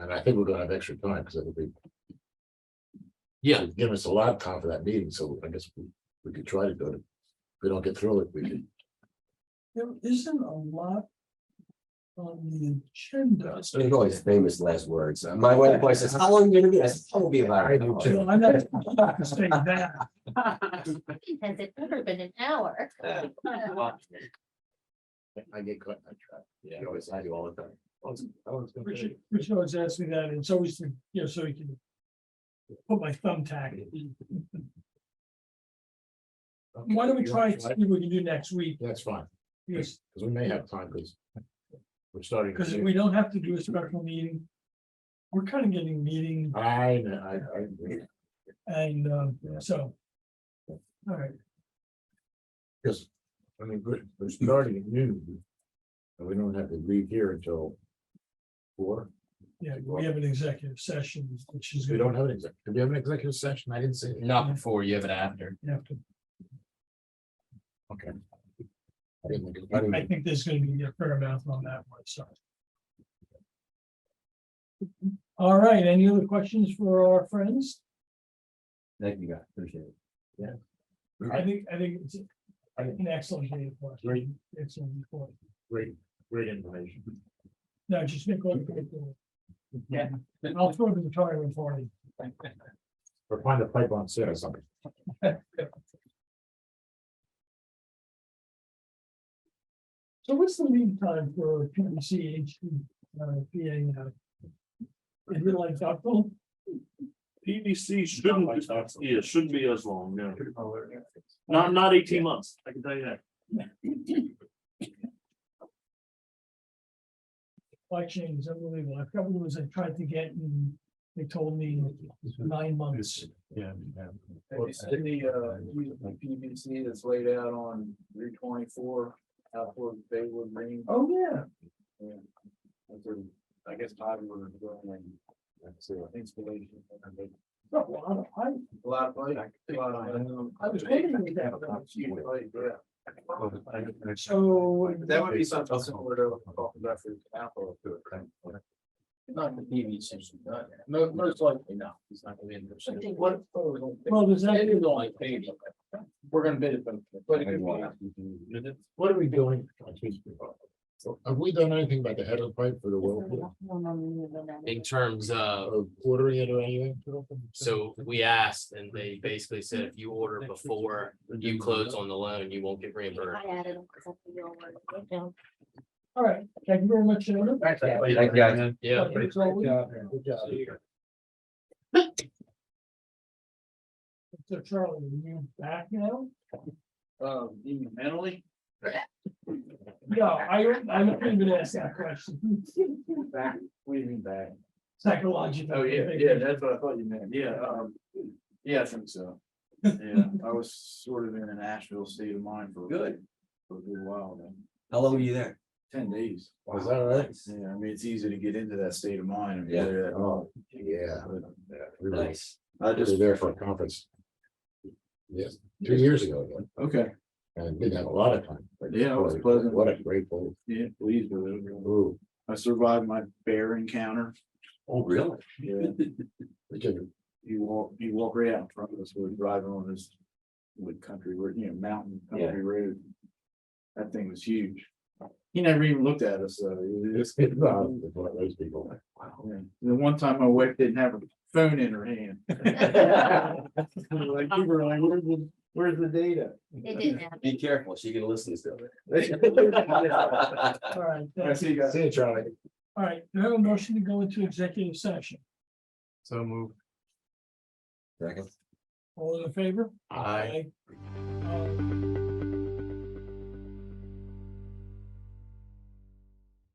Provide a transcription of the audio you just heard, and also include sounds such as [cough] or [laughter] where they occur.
and I think we're gonna have extra time, because it'll be. Yeah. They've Given us a lot of time for that meeting, so I guess we, we could try to go to, if we don't get through it, we can, There isn't a lot. On the agenda. So There's always famous last words. Uh, My wife always says, how long are you gonna be? I said, I'll be I about. do an too. No, I'm not I'm not saying that. Has it ever been an hour? hour." I get caught on track. Yeah, I always, I do all the time. I was- I was gonna Richard, say, Richard always asks me that, and it's always, the- you know, so he can. Put my thumbtack. in. Why don't we You try want and see what we can do next week, That's fine, because, because we may have time, because. We're starting. because if we don't have to do a special meeting. We're kind of getting meeting I, know, I, I, agree. and, um, Yeah. so. All right, because, I mean, we're, we're starting at noon. And we don't have to leave here until. Four, yeah, we have an executive session, which is we good. don't have an exec, do we have an executive session? I didn't see. it. Not before, you have it after. Okay. I didn't look at- I didn't- I think there's gonna be a fair amount on that one, so. All right, any other questions for our friends? Thank you, guys. Appreciate it. I think, I think it's I- an excellent day for us. Great, Excellent report. great, great information. No, just make one. Yeah. I'll throw it in the tire and forty. Or find a pipe on set or something. So what's the lead time for P M C H, uh, P A uh, now? Is it like October? PVC shouldn't, yeah, it shouldn't be as long, no. Not, not eighteen months, I can tell you that. Supply chain is unbelievable. I've got ones I tried to get and they told me nine months. Yeah. Have you seen the, uh, PVC that's laid out on Route twenty-four, out toward Baywood Green? Oh, yeah. Yeah. That's where, I guess Bobby was going, like, installation. Not a lot of hype. A lot of money. a lot of money. I was waiting for that. Huge money, yeah. So. That would be something similar to talking about for Apple. Not the PVC, not, mo- most likely not, it's not gonna be in the. What? Well, does that, It is only paid. We're gonna bid it, but. but it could be- What are we doing? Have we done anything about the head of pipe for the whirlpool, In terms of, or ordering it or anything? so we asked and they basically said if you order before you close on the loan, you won't get reimbursed. I added them 'cause I think you all were written down. [laughs] all right, thank you very much, gentlemen. Thank you, guys. Yeah. It's always- Good job. So Charlie, are you back now? Um, even mentally, No, I, I'm not even gonna ask that question. back, what do you mean back? Psychological. Oh, yeah, yeah, that's what I thought you meant, yeah, um, yeah, I think so. Yeah, I was sort of in an Asheville state of mind for. Good. For a good while, then, How long were you there? ten days. Was that right? Yeah, I mean, it's easy to get into that state of mind. I mean, Yeah. they're- Oh, yeah. yeah, we were- Nice. I We were just, there for a conference. Yes, two years ago, again, okay, and we had a lot of time. Yeah, it was pleasant. What a great place. yeah, pleased with it. Ooh, I survived my bear encounter. Oh, really? Yeah, we could- you walk, you walk right out in front of us, we're driving on this wood country, road, you know, mountain Yeah. country road. That thing was huge. He never even looked at us, so it was- it's good, uh, it's one of those people. yeah. The one time my wife didn't have her phone in her hand. Like, you were like, where's the, where's the data? They didn't have. Be careful. She can listen still. All right, I that's, see you guys. See you, Charlie. all right, do I have a motion to go into executive session? So move. Second. All in favor? Uh, Aye.